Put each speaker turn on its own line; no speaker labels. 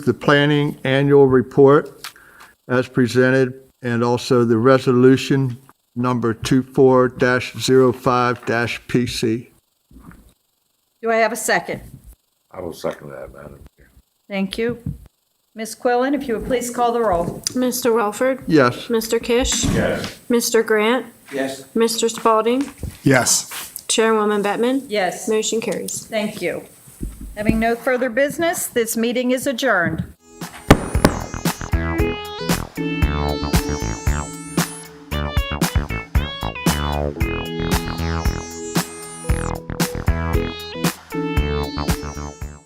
the planning annual report as presented, and also the resolution number 24-05-PC.
Do I have a second?
I will second that, Madam Chair.
Thank you. Ms. Quillan, if you would please call the roll.
Mr. Welford,
Yes,
Mr. Kish. Mr. Grant.
Yes.
Mr. Spalding.
Yes.
Chairwoman Bettman.
Yes,
Motion carries.
thank you. Having no further business, this meeting is adjourned.